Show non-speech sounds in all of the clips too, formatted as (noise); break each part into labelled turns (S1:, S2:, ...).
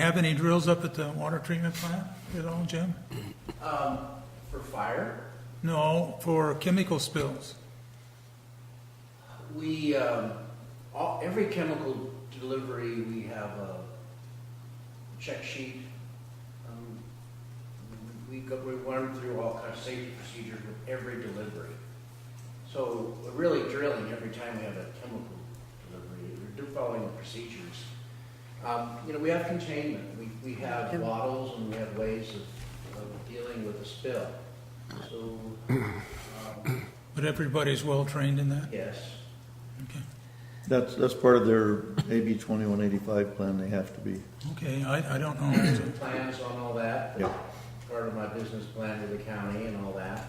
S1: Have any drills up at the water treatment plant at all, Jim?
S2: Um, For fire,
S1: No, for chemical spills.
S2: we, um, all, every chemical delivery, we have a check sheet. Um, We go, we run through all kinds of safety procedures with every delivery. So we're really drilling every time we have a chemical delivery, we're do- following the procedures. Um, you know, we have containment, we, we have bottles and we have ways of, of dealing with a spill. So, um,
S1: But everybody's well-trained in that?
S2: yes.
S1: Okay.
S3: That's, that's part of their AB twenty-one eighty-five plan, they have to be.
S1: Okay, I, I don't know.
S2: plans on all that.
S3: Yeah.
S2: Part of my business plan to the county and all that.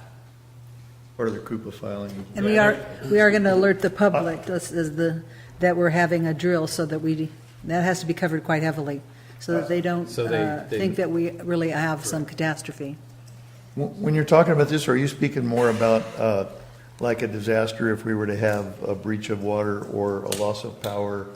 S3: Part of their Krupa filing.
S4: And we are, we are going to alert the public this is the, that we're having a drill so that we, that has to be covered quite heavily, so that they don't
S5: So they-
S4: uh,
S5: they-
S4: think that we really have some catastrophe.
S3: When when you're talking about this, are you speaking more about, uh, like a disaster if we were to have a breach of water or a loss of power,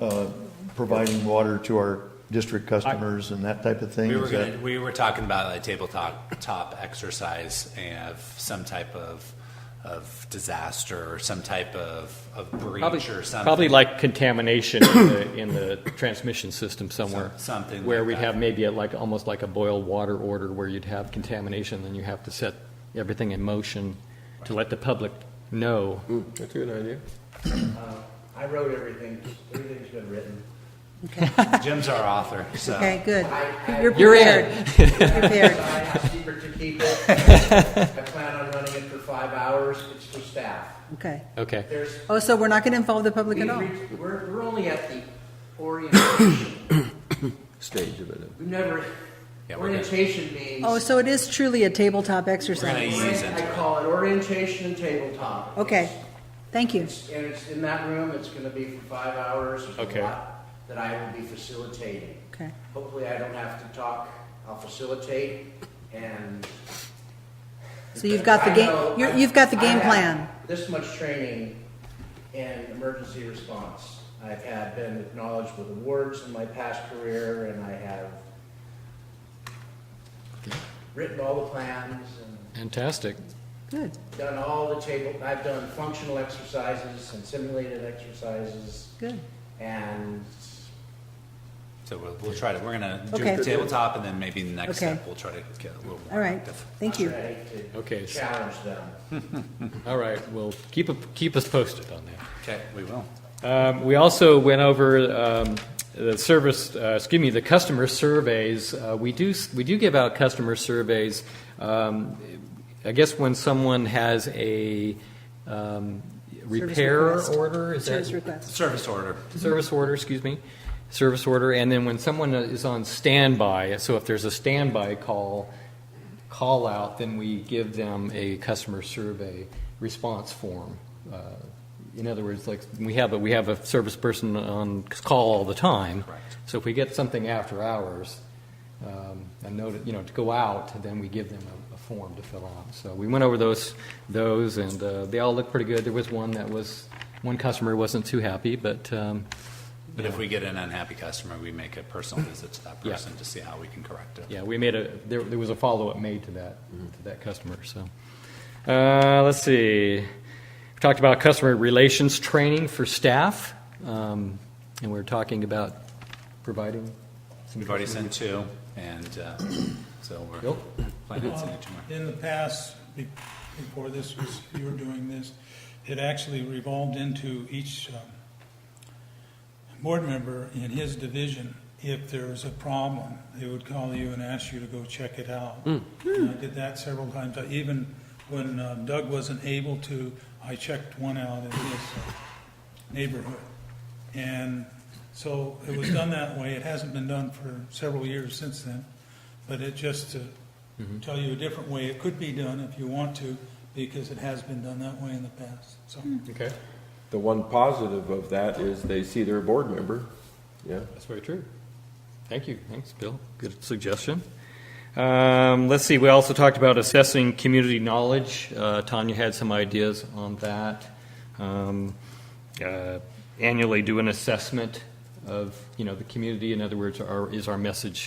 S3: uh, providing water to our district customers and that type of thing?
S5: We were
S3: Is that-
S5: gonna, we were talking about a tabletop top exercise of some type of of disaster or some type of, of breach
S6: Probably,
S5: or something.
S6: probably like contamination in the, in the transmission system somewhere.
S5: Some- something
S6: Where
S5: like
S6: we'd
S5: that.
S6: have maybe a- like, almost like a boil water order where you'd have contamination, then you have to set everything in motion to let the public know.
S5: Mm.
S7: That's a good idea.
S2: Uh, I wrote everything, everything's been written.
S5: Jim's
S4: (laughs)
S5: our author, so
S4: Okay, good.
S2: I-
S4: You're
S6: You're
S4: prepared.
S6: in.
S4: You're prepared.
S2: I have secret to keep it. I plan on running it for five hours, it's for staff.
S4: Okay.
S6: Okay.
S2: There's,
S4: Oh, so we're not going to involve the public
S2: we've
S4: at all?
S2: reached- we're, we're only at the orientation.
S7: Stage of it.
S2: We've never,
S5: Yeah, we're good.
S2: orientation means.
S4: Oh, so it is truly a tabletop
S5: we're gonna
S4: exercise?
S5: ease into
S2: I call it orientation and tabletop.
S4: Okay, thank you.
S2: It's- And it's in that room, it's gonna be for five hours. There's a
S6: Okay.
S2: lot That I will be facilitating.
S4: Okay.
S2: Hopefully, I don't have to talk, I'll facilitate, and.
S4: So you've got the
S2: I know-
S4: game, you're- you've got the
S2: I
S4: game
S2: have
S4: plan.
S2: This much training in emergency response. I've had, been acknowledged with awards in my past career, and I have written all the plans and
S6: Fantastic.
S4: Good.
S2: done all the table, I've done functional exercises and simulated exercises,
S4: Good.
S2: and
S5: So we'll, we'll try to, we're gonna do
S4: Okay.
S5: the tabletop and then maybe the next
S4: Okay.
S5: step, we'll try to get a little more
S4: All right,
S5: active.
S4: thank you.
S2: I'm ready
S6: Okay,
S2: to
S6: so-
S2: challenge them.
S6: All right, well, keep, a- keep us posted on that.
S5: Okay, we will.
S6: Um, We also went over um, the service, uh, excuse me, the customer surveys. Uh, We do, we do give out customer surveys. Um, I guess when someone has a um, repair
S4: request.
S6: order, is that?
S4: Service request.
S5: Service order.
S6: Service order, excuse me, service order, and then when someone is on standby, so if there's a standby call, call out, then we give them a customer survey response form. Uh, In other words, like, we have, a we have a service person on call all the time.
S5: Correct.
S6: So if we get something after hours, um, a note, you know, to go out, then we give them a, a form to fill out. So we went over those, those, and uh, they all looked pretty good. There was one that was, one customer wasn't too happy, but um,
S5: But if we get an unhappy customer, we make a
S6: (laughs)
S5: personal visit to that
S6: Yeah.
S5: person to see how we can correct it.
S6: yeah, we made a, there, there was a follow-up made to that, to that customer, so. Uh, let's see, we talked about customer relations training for staff, um, and we we're talking about providing some.
S5: We've already
S6: customer-
S5: sent two, and uh, so we're
S6: Bill?
S5: planning on sending two more.
S1: In the past, be- before this was, you were doing this, it actually revolved into each um, board member in his division. If there was a problem, they would call you and ask you to go check it out. And I did that several times. I even, when uh, Doug wasn't able to, I checked one out in his uh, neighborhood. And so it was done that way. It hasn't been done for several years since then. But it just uh, to tell you a different way it could be done if you want to, because it has been done that way in the past. So
S6: Okay,
S7: The one positive of that is they see their board member. Yeah.
S6: that's very true. Thank you, thanks, Bill, good suggestion. Um, let's see, we also talked about assessing community knowledge, uh, Tanya had some ideas on that. Um, uh, annually do an assessment of, you know, the community. In other words, our, is our message